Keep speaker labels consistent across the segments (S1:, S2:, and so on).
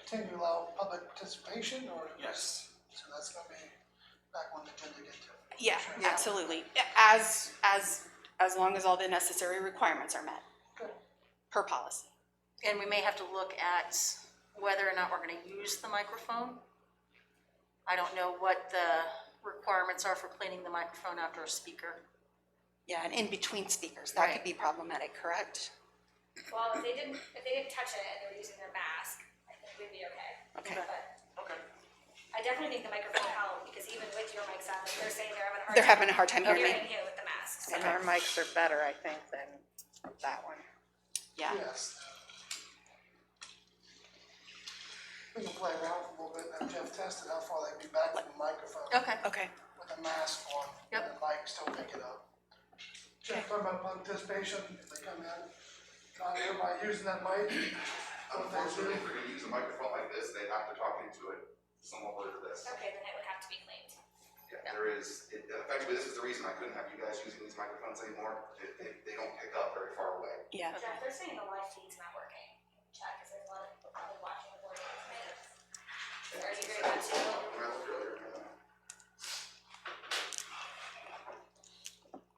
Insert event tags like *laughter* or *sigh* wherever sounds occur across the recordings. S1: intend to allow public participation or?
S2: Yes.
S1: So that's gonna be back on the agenda again too.
S3: Yeah,
S1: Sure.
S3: absolutely. As, as, as long as all the necessary requirements are met
S1: Good.
S3: per policy.
S4: And we may have to look at whether or not we're gonna use the microphone. I don't know what the requirements are for cleaning the microphone after a speaker.
S3: Yeah, and in between speakers, that could
S4: Right.
S3: be problematic, correct?
S5: Well, if they didn't, if they didn't touch it and they were using their mask, I think we'd be okay.
S3: Okay.
S5: But
S2: Okay.
S5: I definitely think the microphone helped, because even with your mics on, they're saying they're having a hard time.
S3: They're having a hard time hearing me.
S5: Hearing you with the mask, so.
S6: And our mics are better, I think, than that one.
S3: Yeah,
S1: Yes. We can play around for a little bit and have Jeff test it, how far they'd be back from the microphone.
S4: Okay.
S3: okay.
S1: With a mask on.
S4: Yep.
S1: And the mic still pick it up. Jeff, talking about public participation, if they come in, not everybody using that mic. I would think so.
S7: Unfortunately, if they're gonna use a microphone like this, they have to talk into it somewhat like this.
S5: Okay, then it would have to be cleaned.
S7: Yeah, there is, it- effectively, this is the reason I couldn't have you guys using these microphones anymore, they, they, they don't pick up very far away.
S3: Yeah,
S5: Jeff, they're saying the live feed's not working. Check, is there a lot of people probably watching the board games, maybe? Or are you going to
S7: When I looked earlier, uh,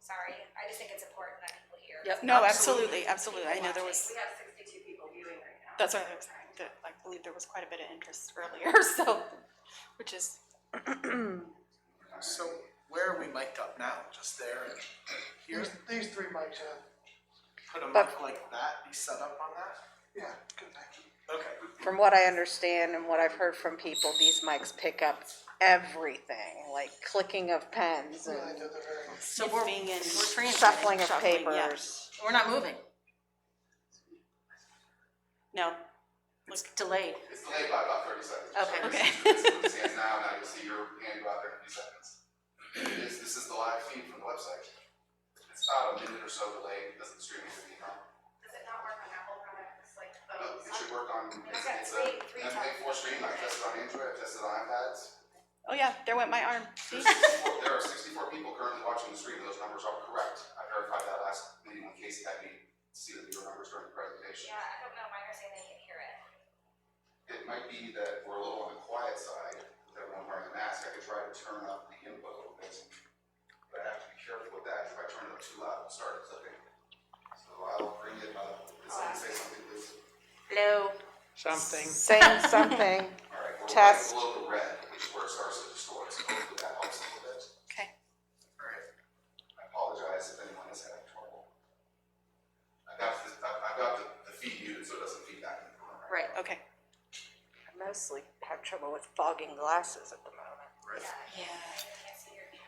S5: Sorry, I just think it's important that people hear.
S4: Yep.
S3: no, absolutely, absolutely. I know there was,
S5: We have sixty-two people viewing right now.
S3: that's what I was, that I believe there was quite a bit of interest earlier, *laughs* so, which is,
S2: So where are we mic'd up now? Just there and here?
S1: Here's, these three mics, uh,
S2: Put a mic like that, be set up on that?
S1: yeah, good thing.
S2: Okay.
S6: From what I understand and what I've heard from people, these mics pick up everything, like clicking of pens
S1: Really,
S6: and
S1: they're very.
S4: So we're,
S3: Sniffing
S4: we're
S3: and
S4: transmitting.
S6: shuffling of
S3: Shuffling, yeah.
S6: papers.
S4: We're not moving.
S3: no,
S4: It's delayed.
S7: It's delayed by about thirty seconds.
S4: Okay.
S3: Okay.
S7: It stands now, now you'll see your hand go out there in a few seconds. This, this is the live feed from the website. It's about a minute or so delayed, it doesn't stream to the account.
S5: Does it not work on Apple products like
S7: Uh, It should work on, it's,
S5: got
S7: it's
S5: three-
S7: a,
S5: three
S7: that's like four stream, I tested on Android, I tested on iPads.
S3: oh yeah, there went my arm, see?
S7: There's 64 There are sixty-four people currently watching the stream, those numbers are correct. I verified that last meeting when Casey had me see the viewer numbers during the presentation.
S5: Yeah, I don't know, mine are saying they can hear it.
S7: It might be that we're a little on the quiet side, with everyone wearing a mask, I could try to turn up the input a little bit. But I have to be careful with that, if I turn it up too loud, it'll start clipping. So I'll bring it up, Does someone say something, please.
S4: Hello.
S8: something.
S6: Saying something,
S7: All right, we're right
S6: Test.
S7: below the red, which is where it starts to distort, so hopefully that helps a little bit.
S3: Okay,
S7: Alright, I apologize if anyone is having trouble. I got the, I, I got the, the feed muted, so it doesn't feed back in the room.
S4: Right.
S3: okay.
S6: I mostly have trouble with fogging glasses at the moment.
S8: uh,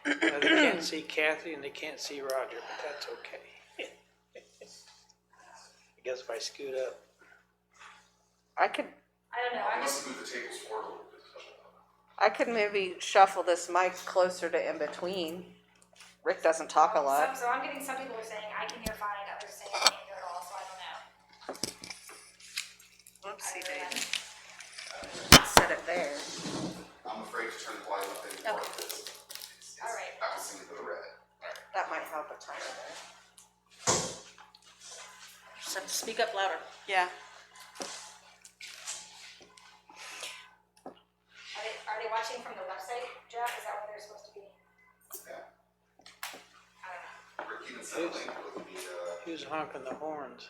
S8: They can't see Kathy and they can't see Roger, but that's okay. *laughs* I guess if I scoot up.
S6: I could,
S5: I don't know,
S7: I
S5: I'm just,
S7: must move the tables forward a little bit.
S6: I could maybe shuffle this mic closer to in between. Rick doesn't talk a
S5: so,
S6: lot.
S5: so I'm getting some people are saying I can hear fine, others saying I can't hear at all, so I don't know.
S6: Oopsie
S5: I don't know.
S6: Set it there.
S7: I'm afraid to turn the volume up anymore, because it's, it's
S5: Alright.
S7: bouncing to the red.
S6: That might help a tiny bit.
S4: Just have to speak up louder.
S3: Yeah,
S5: Are they, are they watching from the website, Jeff? Is that where they're supposed to be?
S7: Yeah,
S5: I don't know.
S7: Rick even said link would be, uh,
S8: Who's honking the horns?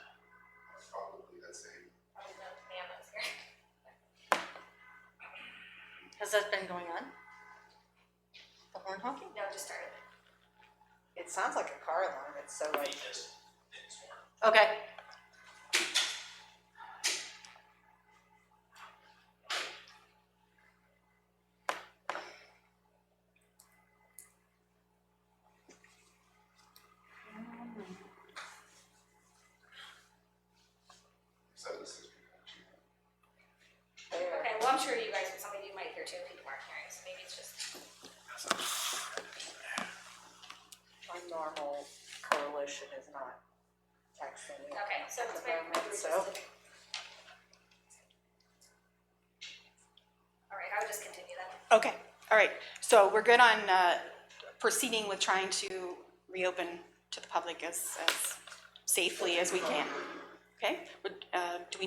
S7: probably that same.
S5: Probably no man that's here. *laughs*
S4: Has that been going on? The horn honking?
S5: No, just started.
S6: It sounds like a car alarm. It's so like.
S4: Okay.
S7: seventy-six people.
S5: Okay, well, I'm sure you guys, some of you might hear too, people aren't hearing, so maybe it's just,
S6: my normal coalition is not texting me.
S5: okay, so it's my.
S6: Environment, so.
S5: All right, I would just continue then.
S3: okay, all right. So we're good on, uh, proceeding with trying to reopen to the public as, as safely as we can. Okay, Would, uh, do we